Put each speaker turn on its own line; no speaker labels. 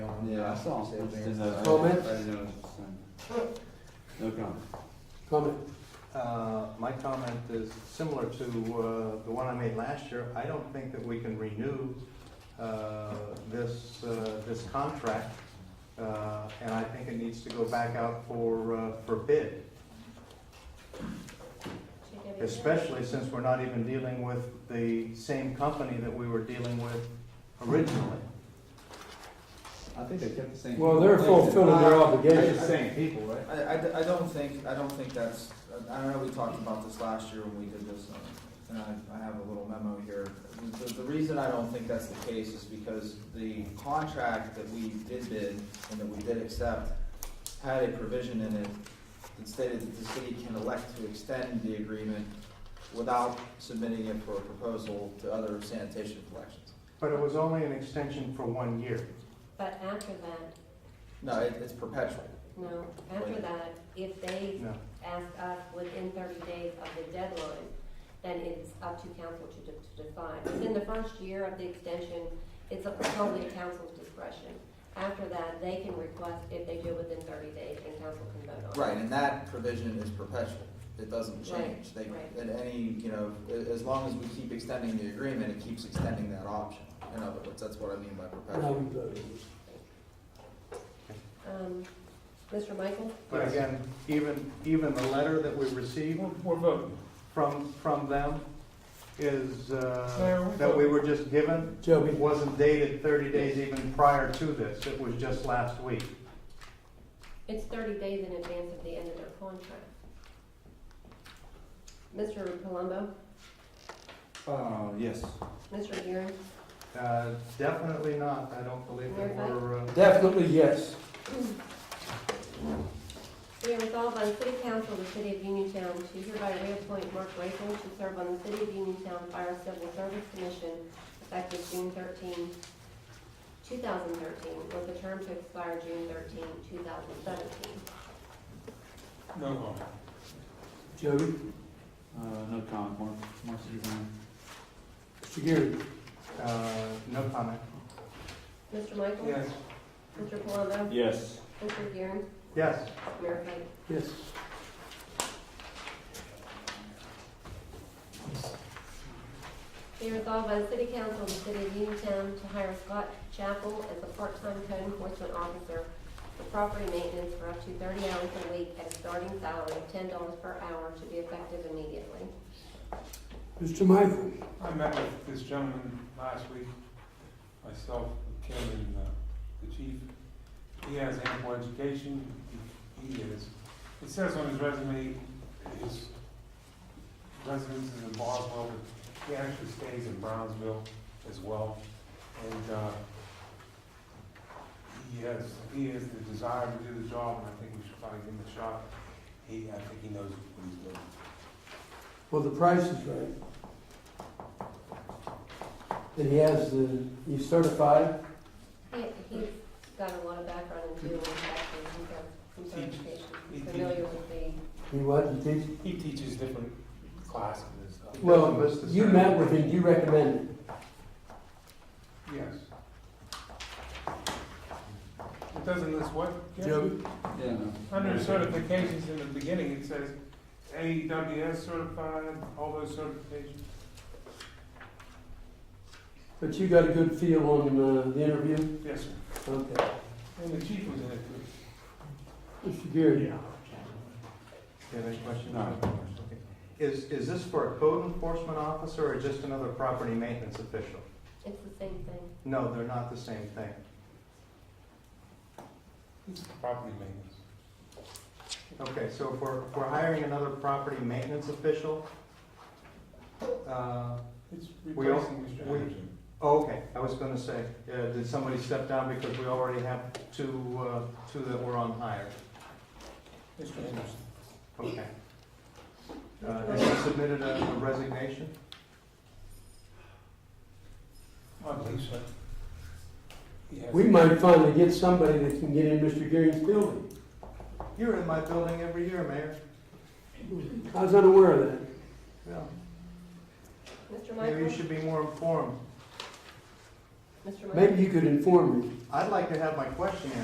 Yeah, I saw him. There's a-
Comments?
I didn't know it was the same. No comment.
Comment?
Uh, My comment is similar to uh, the one I made last year. I don't think that we can renew uh, this, uh, this contract, uh, and I think it needs to go back out for, uh, for bid, especially since we're not even dealing with the same company that we were dealing with originally.
I think they kept the same.
Well, they're fulfilling their
It's the
obligation.
same people, right?
I, I, I don't think, I don't think that's, I I know we talked about this last year when we did this, uh, and I, I have a little memo here. The, the reason I don't think that's the case is because the contract that we did bid and that we did accept had a provision in it that stated that the city can elect to extend the agreement without submitting it for a proposal to other sanitation collections.
But it was only an extension for one year.
But after that,
No, it, it's perpetual.
no, after that, if they
No.
ask us within thirty days of the deadline, then it's up to council to, de- to decide. Within the first year of the extension, it's up- totally council's discretion. After that, they can request if they do it within thirty days, and council can vote on it.
Right, and that provision is perpetual. It doesn't change. They,
right.
at any, you know, a- as long as we keep extending the agreement, it keeps extending that option. In other words, that's what I mean by
Now
perpetual.
we voted.
Um, Mr. Michael?
But again, even, even the letter that we received
We're voting.
from, from them is,
Mayor,
uh,
we
that we were just given,
Joby,
It wasn't dated thirty days even prior to this, it was just last week.
It's thirty days in advance of the end of their contract. Mr. Palumbo,
Uh, yes.
Mr. Gearing,
Uh, Definitely not, I don't believe that we're, uh,
definitely yes.
Be it resolved by the City Council of the City of Uniontown to hereby reappoint Mark Rachel to serve on the City of Uniontown Fire Civil Service Commission effective June 13, 2013, with a term to expire June 13, 2017.
No comment.
Joby,
Uh, no comment, Mark, Mark, you can.
Mr. Geary,
uh, no comment.
Mr. Michael? Mr. Palumbo?
Yes.
Mr. Gearing?
Yes,
Mayor Pike?
yes.
Be resolved by the City Council of the City of Uniontown to hire Scott Chapel as a part-time code enforcement officer for property maintenance for up to thirty hours a week at a starting salary of ten dollars per hour to be effective immediately.
Mr. Michael,
I met with this gentleman last week, myself, Kim, and uh, the chief. He has ample education, He- he is, it says on his resume, his residence is in Boswell, but he actually stays in Brownsville as well. And uh, he has, he has the desire to do the job, and I think we should probably give him a shot. He, I think he knows what he's doing.
well, the price is right. And he has the, he's certified,
He, he's got a lot of background in doing inspections, he's got some certifications, he's familiar with the,
he what, he teaches?
He teaches different classes and stuff.
Well, you met with him, you recommended.
Yes. It doesn't list what? Jeff?
Joby,
Yeah, no.
Under certifications in the beginning, it says AEWS certified, all those certifications.
but you got a good feel on uh, the interview?
Yes, sir.
Okay.
And the chief was in it too.
Mr. Geary?
you have any questions?
No.
Okay. Is, is this for a code enforcement officer or just another property maintenance official?
it's the same thing.
No, they're not the same thing.
Property maintenance.
Okay, so if we're, if we're hiring another property maintenance official, uh,
It's
We all-
replacing Mr.
we-
Anderson.
Oh, Okay, I was gonna say, uh, did somebody step down because we already have two, uh, two that were on hire?
Mr. Anderson.
Okay. Uh, Has he submitted a a resignation?
I believe so. He has-
We might finally get somebody that can get in Mr. Gearing's building.
You're in my building every year, Mayor.
I was unaware of that.
Well,
Mr.
Maybe you
Michael?
should be more informed.
Mr. Lynn?
Maybe you could inform me.
I'd like to have my question answered.